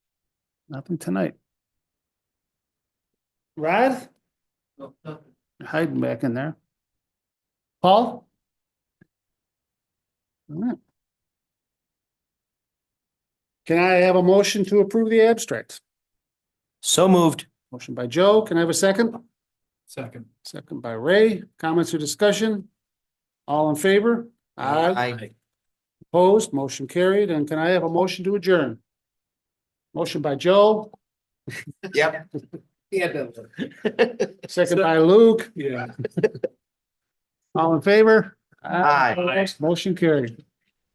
Nothing tonight. Rod, You're Hiding back in there. Paul, All right. can I have a motion to approve the abstract? So moved. Motion by Joe, can I have a second? Second. Second by Ray, comments or discussion? All in favor? Aye, opposed, motion carried, and can I have a motion to adjourn? Motion by Joe, Yep. Yeah. second by Luke, Yeah. all in favor? Aye. Opposed? Motion carried.